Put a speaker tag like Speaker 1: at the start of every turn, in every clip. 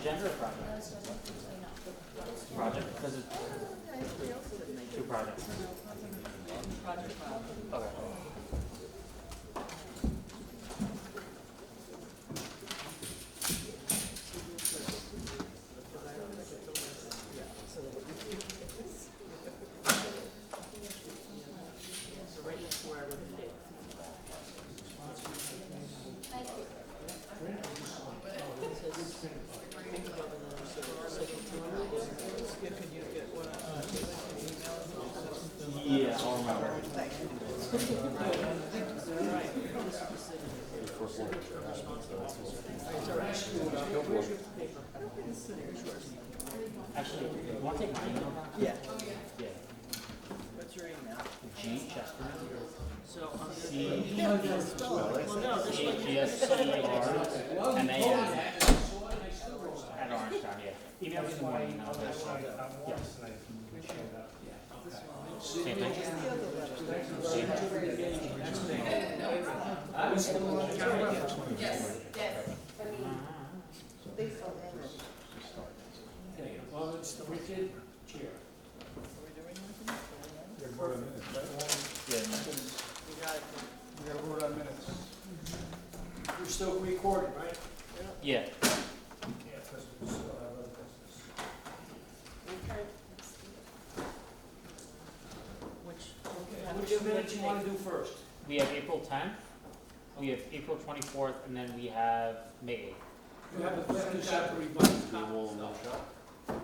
Speaker 1: agenda or project? Project, because it's two projects. Okay. Yeah, I'll remember. Actually, you want to take my email?
Speaker 2: Yeah.
Speaker 1: Yeah.
Speaker 2: What's your email?
Speaker 1: G Chesterman.
Speaker 2: So um, on this.
Speaker 1: C
Speaker 2: Well, no, this
Speaker 1: C
Speaker 2: one.
Speaker 1: H E S C R M A N. At Orange Town, yeah. Email me in the morning. and I'll do it. Same thing.
Speaker 3: Well, it's the wicked chair.
Speaker 1: Yeah.
Speaker 2: We got it.
Speaker 3: We gotta vote on minutes. We're still recording, right?
Speaker 1: Yeah.
Speaker 3: Yeah, because we still have other business.
Speaker 2: Which?
Speaker 3: Which minutes you wanna do first?
Speaker 1: We have April tenth, we have April twenty-fourth, and then we have May eighth.
Speaker 3: You have a fifty separate budget. We will not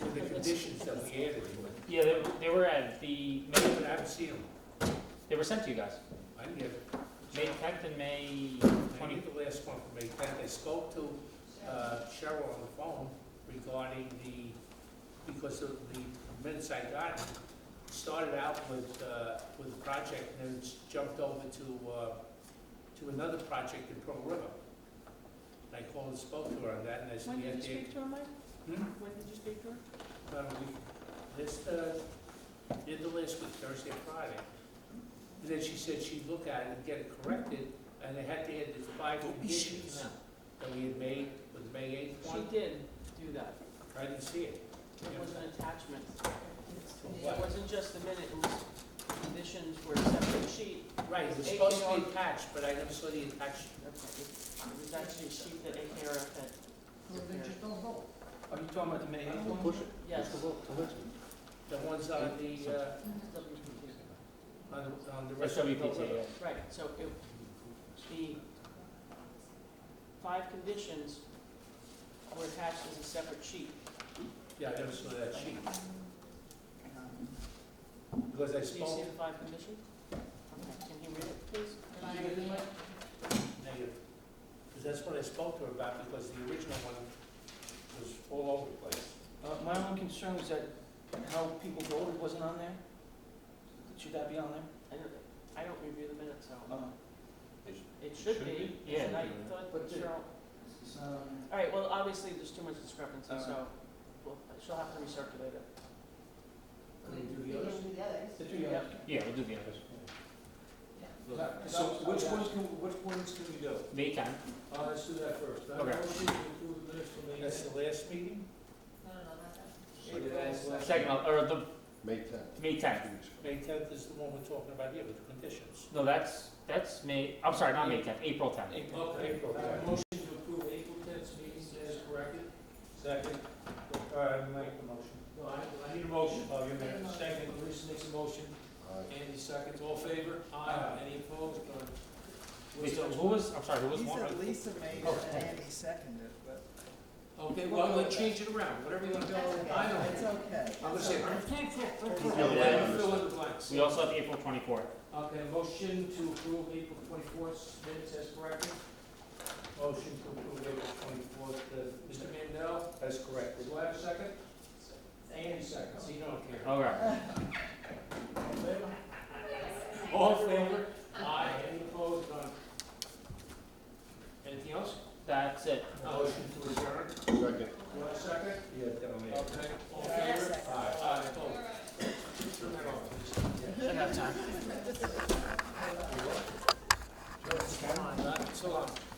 Speaker 3: With the conditions that we added, but
Speaker 1: Yeah, they, they were at the, May,
Speaker 3: but I haven't seen them.
Speaker 1: they were sent to you guys,
Speaker 3: I didn't get,
Speaker 1: May tenth and May
Speaker 3: I
Speaker 1: twenty.
Speaker 3: need the last one from May tenth. I spoke to uh, Cheryl on the phone regarding the, because of the minutes I got, started out with, uh, with a project and then s- jumped over to, uh, to another project in Pearl River. And I called and spoke to her on that and I said,
Speaker 2: When
Speaker 3: yeah,
Speaker 2: did you
Speaker 3: Dave.
Speaker 2: speak to her, Mike?
Speaker 3: Hmm?
Speaker 2: When did you speak to her?
Speaker 3: About a week, this, uh, did the list with Thursday, and Friday. And then she said she'd look at it and get it corrected, and they had to add the five conditions that we had made with May eighth
Speaker 2: She
Speaker 3: one.
Speaker 2: did do that.
Speaker 3: I didn't see it.
Speaker 2: It was an attachment.
Speaker 3: what?
Speaker 2: It wasn't just the minute, it was conditions were a separate sheet.
Speaker 3: Right, it was supposed to be attached, but I never saw the attached.
Speaker 2: Okay, It was actually a sheet that AKRF had.
Speaker 4: Are you talking about the May eighth one?
Speaker 2: Yes.
Speaker 3: The ones on the, uh,
Speaker 2: WPT.
Speaker 3: on the, on the
Speaker 1: That's
Speaker 3: rest of the
Speaker 1: WPT, yeah.
Speaker 2: Right, so it, the five conditions were attached as a separate sheet.
Speaker 3: Yeah, I never saw that sheet, because I
Speaker 2: Do you see
Speaker 3: spoke.
Speaker 2: the five conditions? Okay, can you read it, please?
Speaker 3: Negative. Because that's what I spoke to her about, because the original one was all over the place.
Speaker 4: Uh, my only concern was that how people voted wasn't on there. Should that be on there?
Speaker 2: I don't, I don't review the minutes, so
Speaker 4: Uh,
Speaker 2: it should
Speaker 1: Should
Speaker 2: be,
Speaker 1: be? Yeah.
Speaker 2: and I thought
Speaker 4: But the-
Speaker 2: Cheryl,
Speaker 4: um,
Speaker 2: all right, well, obviously, there's too much discrepancy,
Speaker 4: All
Speaker 2: so, well, she'll have to recirculate it.
Speaker 4: the two of them.
Speaker 1: Yeah, we'll do the others.
Speaker 4: So which ones can, which ones can we do?
Speaker 1: May tenth,
Speaker 4: Uh, let's do that first. I
Speaker 1: Okay.
Speaker 4: motion to approve the minutes from May
Speaker 3: That's the last meeting?
Speaker 1: second, uh, or the,
Speaker 5: May tenth.
Speaker 1: May tenth.
Speaker 3: May tenth is the one we're talking about here with the conditions.
Speaker 1: No, that's, that's May, I'm sorry, not May tenth, April tenth.
Speaker 4: April.
Speaker 3: April.
Speaker 4: I have a motion to approve April tenth meetings as corrected.
Speaker 3: Second. All right, I'll make the motion.
Speaker 4: No, I, I need a motion.
Speaker 3: Oh, you
Speaker 4: Second, Larissa makes a motion. Andy seconds. All favor?
Speaker 3: Aye.
Speaker 4: Any opposed? None.
Speaker 1: Wait, so who was, I'm sorry, who was
Speaker 6: He
Speaker 1: one?
Speaker 6: said Lisa made
Speaker 1: Oh,
Speaker 6: it and Andy seconded it, but
Speaker 4: Okay, well, let's change it around, whatever you want to go. I don't.
Speaker 6: it's okay.
Speaker 4: I'm gonna say.
Speaker 5: Yeah.
Speaker 3: Fill in the blanks.
Speaker 1: We also have April twenty-fourth.
Speaker 4: Okay, motion to approve April twenty-fourth minutes as corrected.
Speaker 3: Motion to approve April twenty-fourth, uh,
Speaker 4: Mr. Mandel,
Speaker 3: That's correct.
Speaker 4: do I have a second? Andy seconds, he don't care.
Speaker 3: Uh-huh.
Speaker 1: All right.
Speaker 4: All in favor? All in favor? Aye, any opposed, none. Anything else?
Speaker 1: That's it.
Speaker 3: Motion to adjourn?
Speaker 5: Second.
Speaker 4: Do I have a second?
Speaker 3: Yeah, that'll make.
Speaker 4: Okay, all in favor?
Speaker 3: Aye.
Speaker 4: Aye, opposed. Turn that off, please.
Speaker 3: Not so long.